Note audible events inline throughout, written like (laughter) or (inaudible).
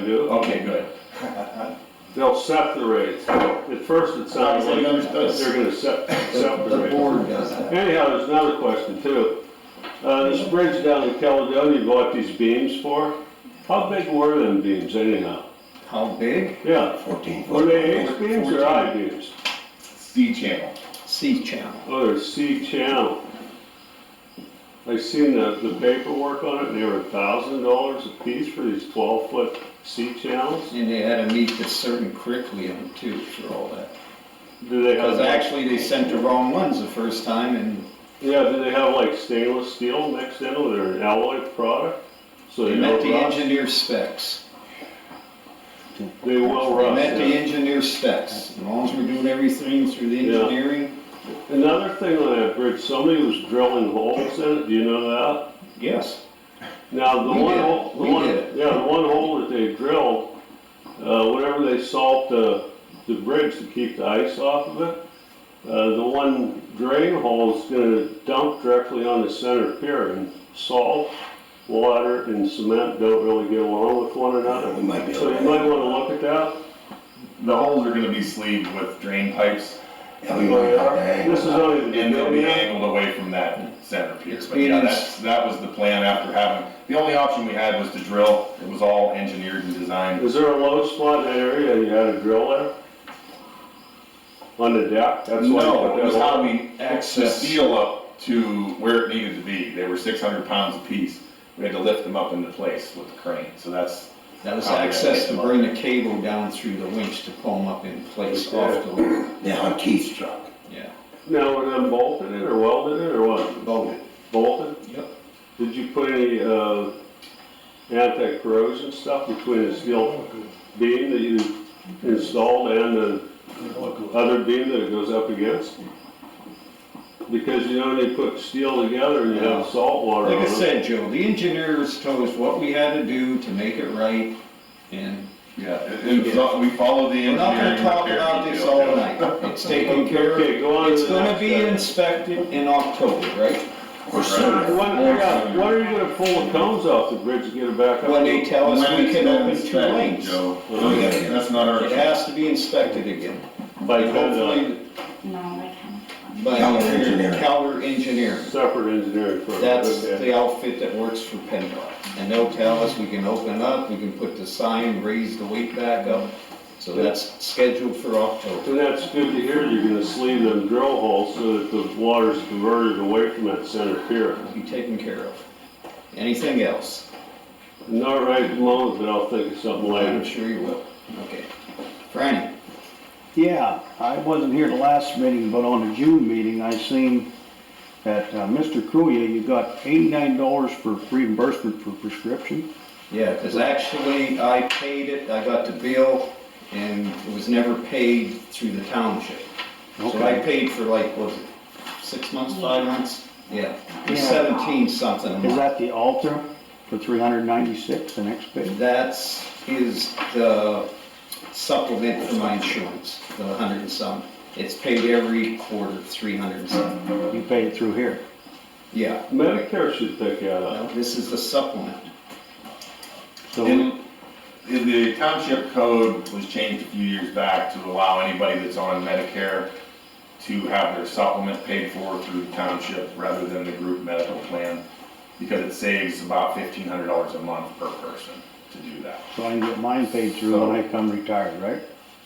do, okay, good. They'll set the rates. At first it sounded Obviously, like you understood. they're gonna set, set the The rates. board does that. Anyhow, there's another question too. Uh, this bridge down in Caledonia, you bought these beams for, how big were them beams anyhow? How big? Yeah, Fourteen. were they H beams or I beams? C channel. C channel. Oh, they're C channel. I seen the, the paperwork on it, and they were a thousand dollars a piece for these twelve foot C channels? And they had to meet this certain curriculum too for all that. Do they have? Because actually, they sent the wrong ones the first time and Yeah, do they have like stainless steel mixed in with their alloy product? So they they met don't the rust? engineer specs. They will They rust, met the yeah. engineer specs. As long as we're doing everything through the Yeah. engineering, Another thing on that bridge, somebody was drilling holes in it, do you know that? yes. Now, the We one did. hole, the We one, did it. yeah, the one hole that they drilled, uh, whenever they salt the, the bridge to keep the ice off of it, uh, the one drain hole is gonna dump directly on the center pier and salt, water and cement don't really get along with one another. We might be So able you to- might wanna look at that. The holes are gonna be sleeved with drain pipes, Yeah, we might have to hang. Oh, This is only the and they'll be beginning. angled away from that center pier. It's But yeah, being- that's, that was the plan after having, the only option we had was to drill. It was all engineered and designed. Is there a low spot in that area you had a drill there? On the deck? That's why you No, put it was that how on. we access the steel up to where it needed to be. They were six hundred pounds apiece. We had to lift them up into place with the crane, so that's, That Oh, was access to bring the cable down through the winch to pull them up in place off the loop. Yeah, on Keith's truck. Yeah, Now, were them bolted it or welded it or what? voted. Bolted? Yep. Did you put any, uh, anti-corrosion stuff between the Oh, steel beam that you installed and the Oh, other beam that it goes up against? Because you know, when you put steel together and you have salt water on Like it. I said, Joe, the engineers told us what we had to do to make it right, and yeah, it- it was all- we followed the we're engineering. not gonna talk repair about this detail. all night. It's taken care of. Okay, go on to It's the gonna next be item. inspected in October, right? Or soon. When, yeah, when are you gonna pull the cones off the bridge to get it back up? When they tell us When we it's can been open two inspected, lanes. Joe, Oh, yeah. that's not our. It has to be inspected again. By uh, Kendall, Hopefully, No, I can't. by Calder Engineering. Calder Engineering. separate engineering firm. That's okay. the outfit that works for PennDOT. And they'll tell us we can open up, we can put the sign, raise the weight back up. So that's scheduled for October. And that's good to hear, you're gonna sleeve them drill holes so that the water's diverted away from that center pier. It'll Be taken care of. Anything else? Not right at the moment, but I'll think of something I'm later. sure you will. Okay. Franny, Yeah, I wasn't here the last meeting, but on the June meeting, I seen that uh, Mr. Kruya, you got eighty-nine dollars for reimbursement for prescription. yeah, because actually I paid it, I got the bill, and it was never paid through the township. So I Okay. paid for like, was it six months, five months? Yeah, it was Yeah. seventeen something a month. Is that the altar for three hundred ninety-six, the next page? That's, is the supplement for my insurance, the hundred and some. It's paid every quarter, three hundred and some. You paid it through here. Yeah, Medicare should pick that Uh-huh. up. Well, this is the supplement. So, And the- the township code was changed a few years back to allow anybody that's on Medicare to have their supplement paid for through the township rather than the group medical plan, because it saves about fifteen hundred dollars a month per person to do that. so I can get mine paid through when I come retired, right?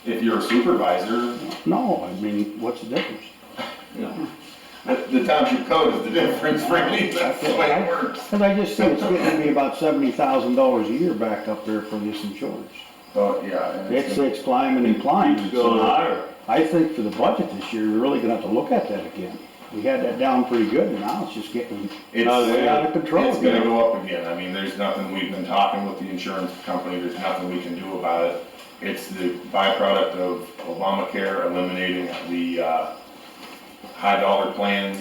If you're a supervisor, No, I mean, what's the difference? No, the the township code is the (laughs) difference, really, that's the way it works. Cause I just said it's getting to be about seventy thousand dollars a year back up there for this insurance. So, yeah. and it's It's, it's climbing and climbing. It's going higher. I think for the budget this year, we're really gonna have to look at that again. We had that down pretty good, and now it's just getting It's, way out of control. it's gonna go up again, I mean, there's nothing, we've been talking with the insurance company, there's nothing we can do about it. It's the byproduct of Obamacare eliminating the, uh, high dollar plans.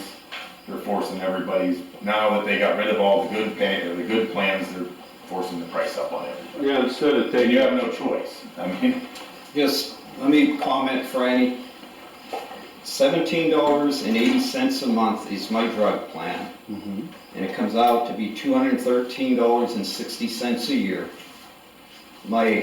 They're forcing everybody's, now that they got rid of all the good pay, or the good plans, they're forcing the price up on everything. Yeah, instead of And taking, you have no choice, I mean, just, let me comment, Franny. Seventeen dollars and eighty cents a month is my drug plan, Mhm. and it comes out to be two hundred and thirteen dollars and sixty cents a year. My